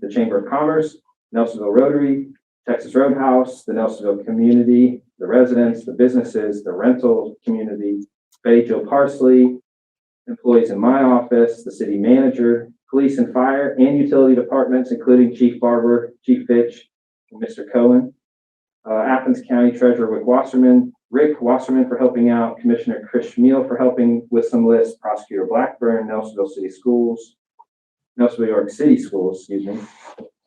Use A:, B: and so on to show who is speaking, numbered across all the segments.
A: the Chamber of Commerce, Nelsonville Rotary, Texas Roadhouse, the Nelsonville community, the residents, the businesses, the rental community, Betty Jo Parsley, employees in my office, the city manager, police and fire, and utility departments, including Chief Barber, Chief Fitch, and Mr. Cohen. Uh, Athens County Treasurer Rick Wasserman, Rick Wasserman for helping out, Commissioner Chris Schmiel for helping with some lists, Prosecutor Blackburn, Nelsonville City Schools, Nelsonville York City Schools, excuse me,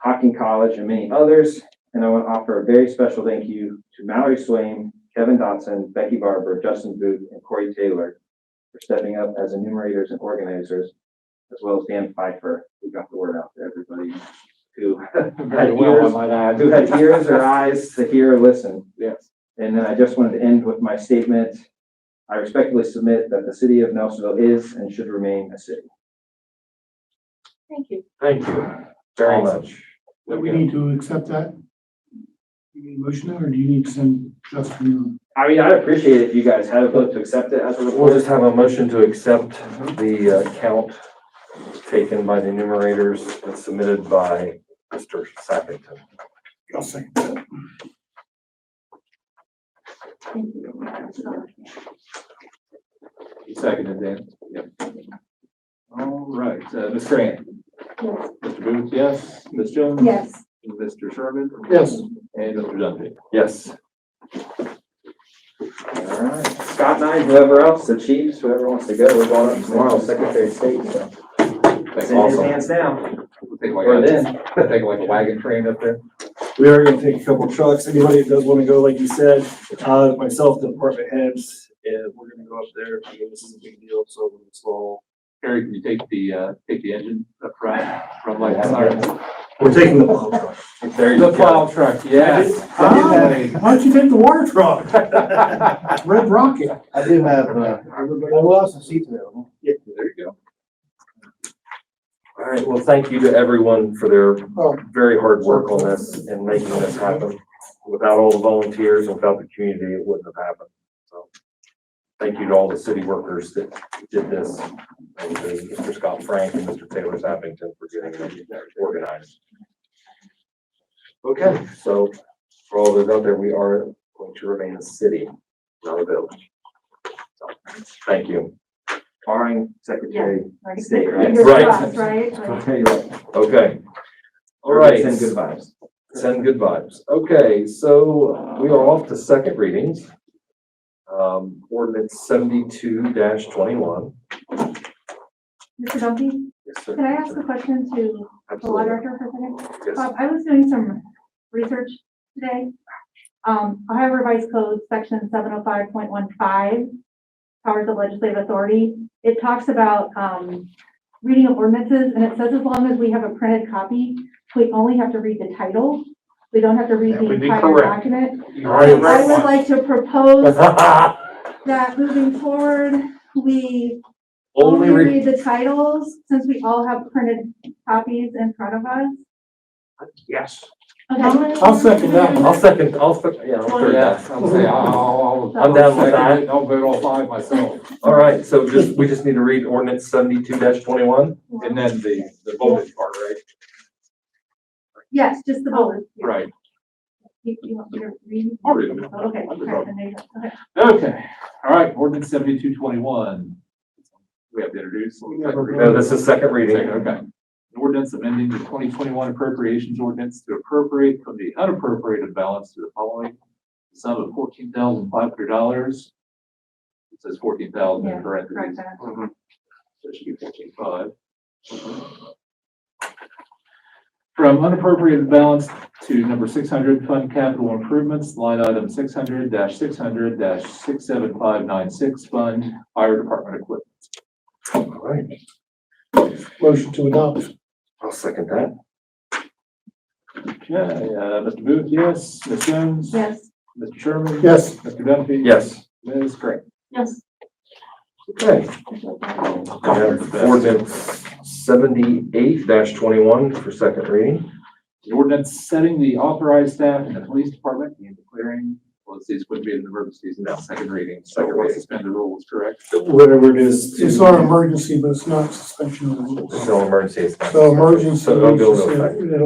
A: Hocking College, and many others. And I want to offer a very special thank you to Mallory Swaim, Kevin Dotson, Becky Barber, Justin Booth, and Corey Taylor for stepping up as enumerators and organizers, as well as Dan Pfeiffer, who got the word out to everybody who
B: Very well, I might add.
A: who had ears or eyes to hear or listen.
B: Yes.
A: And then I just wanted to end with my statement. I respectfully submit that the city of Nelsonville is and should remain a city.
C: Thank you.
B: Thank you very
A: Awesome.
B: much.
D: Do we need to accept that? You need a motion or do you need to send Justin?
A: I mean, I'd appreciate it if you guys had a vote to accept it as a
B: We'll
A: report. Mm-hmm.
B: just have a motion to accept the uh, count taken by the enumerators and submitted by Mr. Sappington.
D: I'll second that.
C: Thank you.
E: Seconded, Dan. Yep. All right, uh, Ms. Grant,
C: Yes.
E: Mr. Booth, yes, Ms. Jones?
C: Yes.
E: Mr. Sherman?
D: Yes.
E: And Mr. Duffy.
B: Yes.
A: All right. Scott and I, whoever else, the chiefs, whoever wants to go, we're going up tomorrow, Secretary of State. so It's in his
B: Awesome.
A: hands
B: Oh
A: now,
E: We'll Take
A: or
E: like,
A: then.
E: a- take like a wagon train up there.
F: We are gonna take a couple trucks, anybody that does wanna go, like you said, uh, myself, the department heads, and we're gonna go up there, I mean, this is a big deal, so we'll install.
E: Harry, can you take the, uh, take the engine up front from like Cyrus?
F: We're taking the plow truck.
B: There you
E: The
B: go.
E: plow truck, yes. Oh.
D: Why don't you take the water truck? Red Rocket.
G: I do have, uh, I will have some seats available.
E: There you go.
B: All right, well, thank you to everyone for their
D: Oh.
B: very hard work on this and making this happen. Without all the volunteers and without the community, it wouldn't have happened. So thank you to all the city workers that did this, and to Mr. Scott Frank and Mr. Taylor Sappington for getting it organized. Okay, so for all those out there, we are going to remain a city, not a village. So, Thank you.
A: Barring Secretary
C: Right.
A: of State, right?
C: Fingers
B: Right.
C: crossed, Right? Like-
A: Okay, right.
B: Okay. All right.
A: Send good vibes.
B: Send good vibes. Okay, so we are off to second readings. Um, ordinance seventy-two twenty-one.
C: Mr. Dumpy, can I ask a question to the law director for a second?
B: Yes,
C: Bob, I was doing some research today. Um, Ohio Revised Code, section seven oh five point one five, powers of legislative authority. It talks about, um, reading of ordinances, and it says as long as we have a printed copy, we only have to read the title. We don't have to read
B: That
C: the
B: would be
C: entire
B: correct.
C: document.
B: You already
C: I
B: read
C: would
B: one.
C: like to propose that moving forward, we
B: Only read,
C: read the titles, since we all have printed copies in front of us.
D: Yes.
C: Okay.
D: I'll second that.
B: I'll second, I'll, sec- yeah, I'll third
E: Yeah,
B: that.
E: I'll say, I'll, I'll.
B: I'm down with
E: I'll-
B: that.
E: I'll vote all five myself.
B: All right, so just, we just need to read ordinance seventy-two twenty-one.
E: And then the, the voltage part, right?
C: Yes, just the bullet.
E: Oh, Right.
C: You, you want me to read?
E: I'll read them.
C: Oh, Okay, all right, then there you go. Okay.
E: Okay, all right, ordinance seventy-two twenty-one. We have to introduce.
B: No, this is second reading.
E: Second, okay. An ordinance amending the twenty twenty-one appropriations ordinance to appropriate from the unappropriated balance to the following sum of fourteen thousand five hundred dollars. It says fourteen thousand
C: Yeah,
E: in
C: Correct
E: parentheses,
C: that.
B: Mm-hmm.
E: so it should be fourteen five. From unappropriated balance to number six hundred, fund capital improvements, line item six hundred six hundred six seven five nine six, fund fire department equipment.
B: All right,
D: Motion to adopt.
B: I'll second that.
E: Okay, uh, Mr. Booth, yes, Ms. Jones?
C: Yes,
E: Mr. Sherman?
D: Yes.
E: Mr. Duffy?
B: Yes.
E: Ms. Grant?
C: yes.
B: Okay. We have ordinance seventy-eight twenty-one for second reading.
E: An ordinance setting the authorized staff in the police department and declaring, well, this would be an emergency, it's now second reading. So
B: Second
E: we'll
B: reading.
E: suspend the rules, correct?
F: Whatever it is.
D: It's our emergency, but it's not suspension of the
B: This is
D: rules.
B: no emergency. it's not-
D: So emergency.
B: So it'll go into
D: it's just-
B: effect.
D: it'll